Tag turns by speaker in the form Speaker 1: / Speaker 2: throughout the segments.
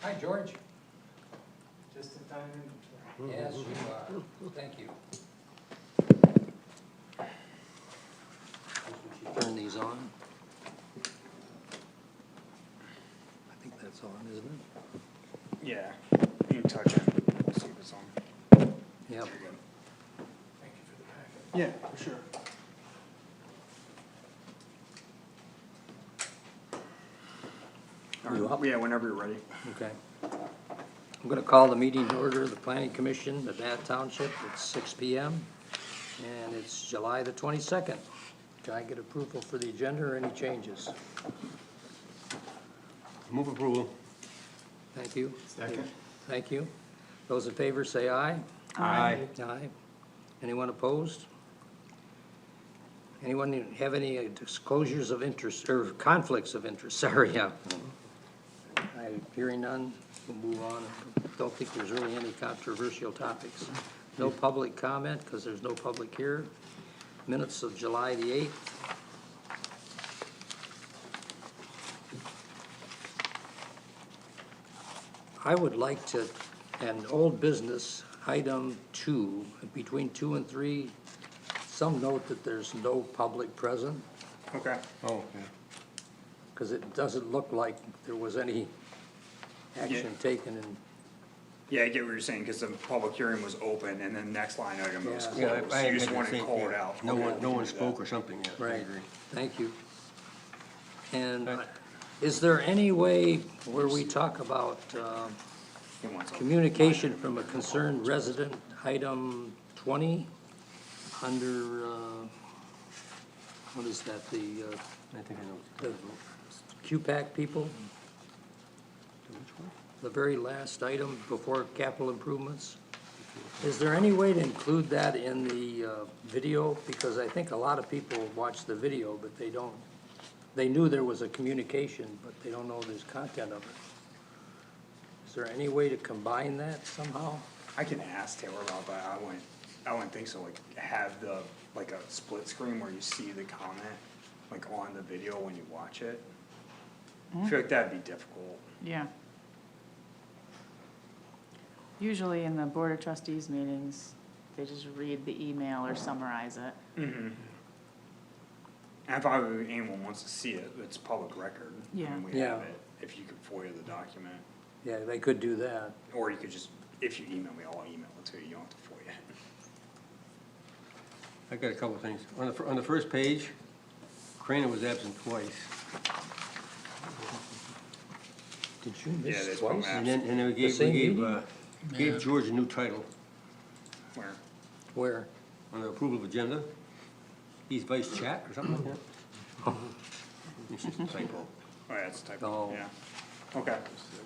Speaker 1: Hi, George. Mm-hmm.
Speaker 2: just in time
Speaker 1: Yes,
Speaker 2: inventory.
Speaker 1: you are. Thank you.
Speaker 3: Turn these on. I think that's on, isn't it?
Speaker 4: Yeah, you touch it, we'll see if it's on.
Speaker 2: Thank
Speaker 3: Yeah.
Speaker 2: you for the packet.
Speaker 4: Yeah, for sure.
Speaker 3: You up?
Speaker 4: Yeah, whenever you're ready.
Speaker 3: Okay. I'm gonna call the meeting to order of the planning commission of Bath Township. It's six P M. And it's July the twenty-second. Can I get approval for the agenda or any changes?
Speaker 5: Move approval.
Speaker 3: Thank you.
Speaker 2: Second.
Speaker 3: Thank you. Those in favor say aye.
Speaker 5: Aye.
Speaker 3: Aye. Anyone opposed? Anyone have any disclosures of interest, or conflicts of interest, sorry, yeah. I, hearing none, we'll move on. Don't think there's really any controversial topics. No public comment, because there's no public here. Minutes of July the eighth, I would like to, an old business, item two, between two and three, some note that there's no public present,
Speaker 4: Okay.
Speaker 5: Oh,
Speaker 3: because it doesn't look like there was any action taken in,
Speaker 4: Yeah, I get what you're saying, because the public hearing was open, and then next line item was
Speaker 3: Yeah.
Speaker 4: closed.
Speaker 5: yeah.
Speaker 4: You just want to call it out.
Speaker 5: No
Speaker 4: Okay,
Speaker 5: one, no
Speaker 4: we
Speaker 5: one
Speaker 4: can do
Speaker 5: spoke
Speaker 4: that.
Speaker 5: or something yet. I
Speaker 3: right?
Speaker 5: agree.
Speaker 3: Thank you. And
Speaker 5: Right.
Speaker 3: is there any way where we talk about um,
Speaker 4: He wants it.
Speaker 3: communication from a concerned resident, item twenty, under, uh, what is that, the uh,
Speaker 5: I think I know. what
Speaker 3: the QPAC people,
Speaker 5: you're- Which one?
Speaker 3: the very last item before capital improvements. Is there any way to include that in the uh, video? Because I think a lot of people watch the video, but they don't, they knew there was a communication, but they don't know there's content of it. Is there any way to combine that somehow?
Speaker 4: I can ask Taylor about that, I wouldn't, I wouldn't think so, like, have the, like a split screen where you see the comment, like on the video when you watch it. I feel like that'd be difficult.
Speaker 6: Yeah. Usually in the Board of Trustees meetings, they just read the email or summarize it.
Speaker 4: And if I, anyone wants to see it, it's public record. and
Speaker 6: Yeah.
Speaker 4: We have
Speaker 3: Yeah.
Speaker 4: it, if you could FOIA the document,
Speaker 3: Yeah, they could do that.
Speaker 4: or you could just, if you email me, I'll email it to you, you don't have to FOIA it.
Speaker 5: I got a couple of things. On the, fir- on the first page, Crane was absent twice.
Speaker 3: Did you
Speaker 4: Yeah,
Speaker 3: miss
Speaker 4: there's one
Speaker 3: twice?
Speaker 4: map
Speaker 5: And then, and then we gave, we
Speaker 3: same
Speaker 5: gave,
Speaker 3: meeting?
Speaker 5: uh, gave George a new title
Speaker 4: Where,
Speaker 3: Where?
Speaker 5: on the approval of agenda. He's vice chat or something like that. It's just a typo.
Speaker 4: oh, yeah, it's type,
Speaker 3: Oh.
Speaker 4: yeah. Okay,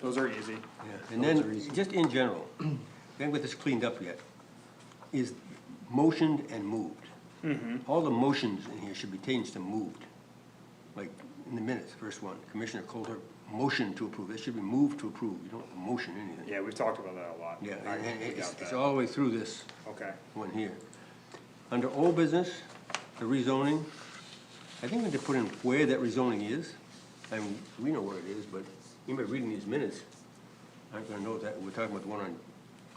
Speaker 4: those are easy.
Speaker 5: Yeah, And then, just in general, we haven't got this cleaned up yet, is motioned and moved.
Speaker 4: Mm-hmm.
Speaker 5: All the motions in here should be changed to moved. Like, in the minutes, first one, Commissioner Coulter, motion to approve, it should be moved to approve, you don't motion anything.
Speaker 4: Yeah, we've talked about that a lot.
Speaker 5: Yeah,
Speaker 4: I
Speaker 5: and- and
Speaker 4: we
Speaker 5: it's,
Speaker 4: got
Speaker 5: it's
Speaker 4: that.
Speaker 5: all the way through this
Speaker 4: Okay,
Speaker 5: one here. Under old business, the rezoning, I think we need to put in where that rezoning is. I mean, we know where it is, but anybody reading these minutes aren't gonna know that. We're talking about the one on,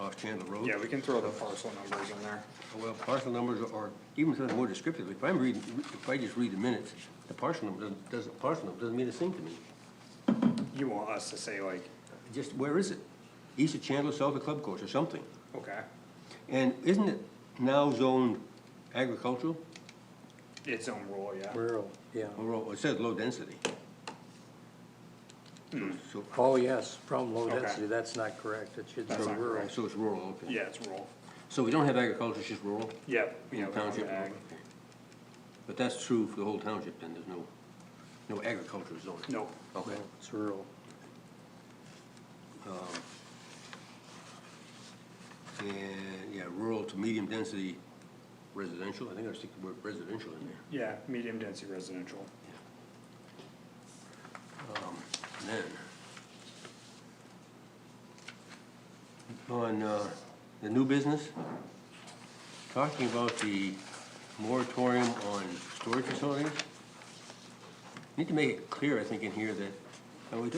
Speaker 5: off Chandler Road.
Speaker 4: yeah, we can throw the parcel numbers in there.
Speaker 5: Well, parcel numbers are, even something more descriptive, if I'm reading, if I just read the minutes, the parcel number doesn't, doesn't, parcel number doesn't mean a thing to me.
Speaker 4: You want us to say like,
Speaker 5: Just, where is it? East of Chandler, south of Club Course or something.
Speaker 4: okay,
Speaker 5: And isn't it now zoned agricultural?
Speaker 4: its own rule, yeah.
Speaker 3: Rural, yeah.
Speaker 5: Or, Oh, it says low density.
Speaker 4: Hmm.
Speaker 5: So,
Speaker 3: Oh, yes, from low
Speaker 4: Okay.
Speaker 3: density, that's not correct. It should be
Speaker 4: That's not
Speaker 3: rural.
Speaker 4: correct.
Speaker 5: so it's rural, okay.
Speaker 4: Yeah, it's rural.
Speaker 5: So we don't have agriculture, it's just rural,
Speaker 4: Yep, we
Speaker 5: Yeah,
Speaker 4: have our own
Speaker 5: township.
Speaker 4: ag.
Speaker 5: but that's true for the whole township, then, there's no, no agriculture zone.
Speaker 4: Nope,
Speaker 5: Okay.
Speaker 3: It's rural.
Speaker 5: And, yeah, rural to medium density residential, I think I stick the word residential in there.
Speaker 4: yeah, medium density residential.
Speaker 5: And then, on uh, the new business, talking about the moratorium on storage facilities, need to make it clear, I think, in here that, uh, we